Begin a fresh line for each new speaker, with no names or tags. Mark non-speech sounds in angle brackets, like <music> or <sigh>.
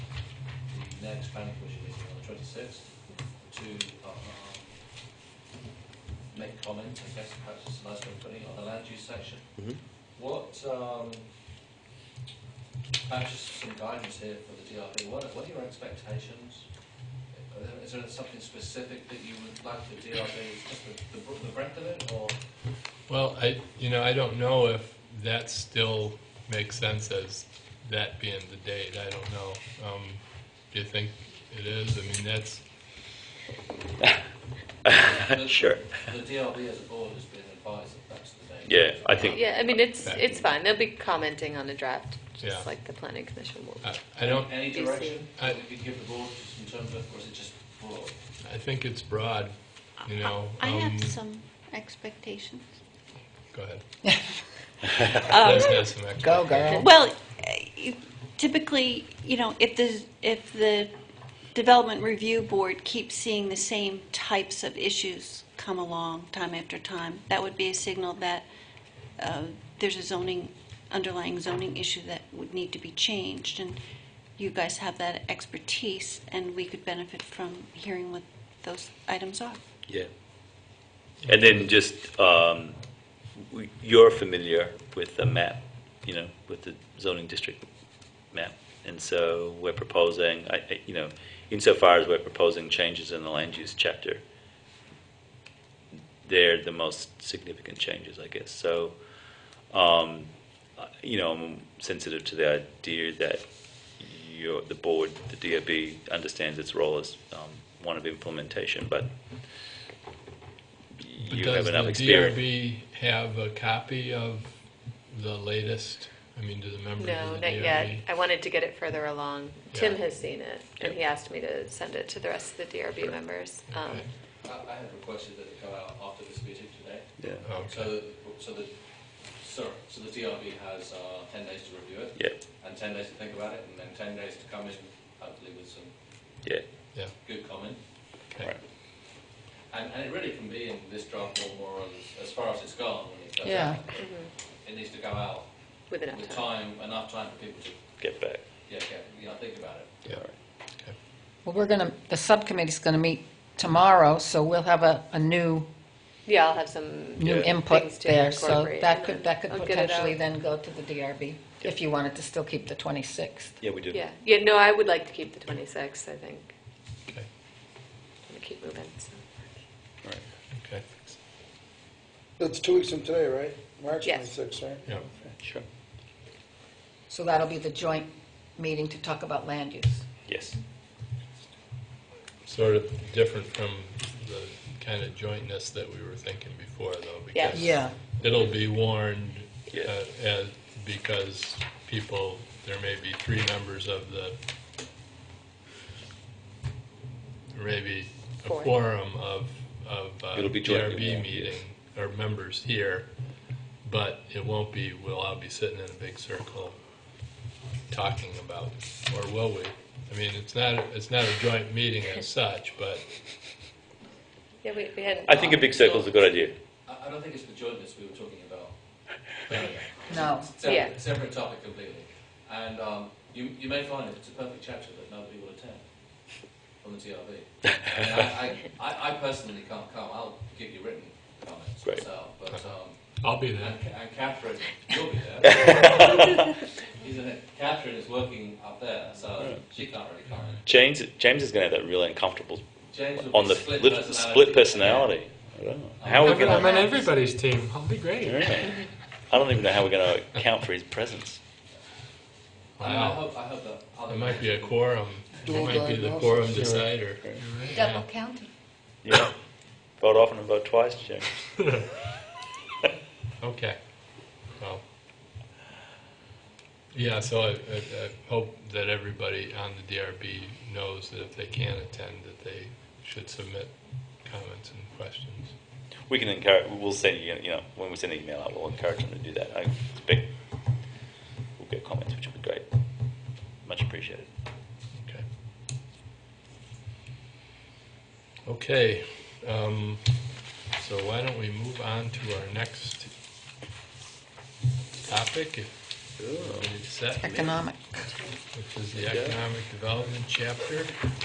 next bank, which is on the twenty-sixth, to, um, make comments and best practice of Lions Company on the land use section.
Mhm.
What, um, perhaps just some guidance here for the DRB, what, are- what are your expectations? Are there- Is there something specific that you would like the DRB, just the, the the breadth of it,
<laughs>
or?
Well, I, you know, I don't know if that still makes sense as that being the date, I don't know. Um, do you think it is? I mean, that's,
The-
Sure.
The DRB as a board has been advised that that's the date.
Yeah, I think
Yeah, I mean, it's,
Okay.
it's fine, they'll be commenting on the draft,
Yeah.
just like the planning commission will.
I, I don't,
Any
DC.
direction
I-
that we could give the board just in terms of, or is it just broad?
I think it's broad, you know.
I
um,
have some expectations.
Go
<laughs>
ahead.
Um,
Liz has some extra.
Go, girl.
Well, eh, typically, you know, if the, if the Development Review Board keeps seeing the same types of issues come along time after time, that would be a signal that uh, there's a zoning, underlying zoning issue that would need to be changed, and you guys have that expertise, and we could benefit from hearing what those items are.
Yeah. And then just, um, w- you're familiar with the map, you know, with the zoning district map. And so we're proposing, I, I- you know, insofar as we're proposing changes in the land use chapter, they're the most significant changes, I guess. So, um, I- you know, I'm sensitive to the idea that your, the board, the DOB understands its role as, um, one of implementation, but
But
you have enough
Does the
experience.
DRB have a copy of the latest? I mean, do the members
No,
of the
not
DRB?
yet, I wanted to get it further along. Tim
Yeah.
has seen it, and
Yeah.
he asked me to send it to the rest of the DRB members. Um,
Okay.
I, I had requested that it go out after this meeting today,
Yeah,
so,
Oh, Okay,
that- so the, sorry, so the DRB has, uh, ten days to review it,
yeah,
and ten days to think about it, and then ten days to come in, hopefully with some
yeah,
yeah,
good comment.
okay.
And, and it really can be in this draft form or as, as far as it's gone, when it goes
Yeah.
out. It needs to go out
With enough
with
time.
time, enough time for people to,
get back.
yeah, get, you know, think about it.
Yeah.
All right.
Okay.
Well, we're going to, the subcommittee's going to meet tomorrow, so we'll have a, a new,
Yeah, I'll have some.
new
Yeah.
input
Things to
there. So
incorporate
that
and
could,
then
that could
I'll get it
potentially
out.
then go to the DRB, if you wanted to still keep the 26th.
Yeah, we do.
Yeah, yeah, no, I would like to keep the 26th, I think.
Okay.
I'm gonna keep moving, so.
All right.
Okay,
That's two weeks from today, right? March
Yes.
26th, right?
yeah,
Sure.
So that'll be the joint meeting to talk about land use.
Yes.
sort of different from the kind of jointness that we were thinking before, though,
Yeah.
because it'll be warned,
Yeah.
uh, as, because people, there may be three members of the, maybe a
Four.
quorum of, of uh,
It'll be jointly
DRB
warned,
meeting,
yes.
or members here, but it won't be, we'll all be sitting in a big circle talking about, or will we? I mean, it's not, it's not a joint meeting
<laughs>
as such, but,
Yeah, we, we hadn't.
I think a big circle is a good idea.
I, I don't think it's the jointness we were talking about.
No.
Separate,
Yeah.
separate topic completely. And um, you, you may find if it's a perfect chapter that nobody will attend from the TRB. I, mean, I, I, I, I personally can't come. I'll give you written comments
Great.
myself. But, um,
I'll be there.
and, and Catherine, you'll be there.
<laughs>
Isn't it? Catherine is working up there, so
Hmm.
she can't really comment.
James, James is going to have that really uncomfortable
James will
on
be
the
split
split,
personality.
split personality. I don't know. How are we
I'm
<laughs> going
on
to?
everybody's team. I'll be great.
I don't even know how we're going to account for his presence.
I, mean, I
Wow.
hope I hope that other
It might be a quorum. It
Dual
might be the
diagnosis.
quorum decider.
Double counting.
<laughs> Yeah. vote often and vote twice, James.
Okay. Well. Yeah, so I, I, I hope that everybody on the DRB knows that if they can't attend, that they should submit comments and questions.
We can encourage. We'll send you. You know, when we send an email out, we'll encourage them to do that. I expect we'll get comments, which will be great. Much appreciated.
Okay. Okay, um, so why don't we move on to our next topic, if
Cool.
It's that,
economic.
which is the Economic Development Chapter.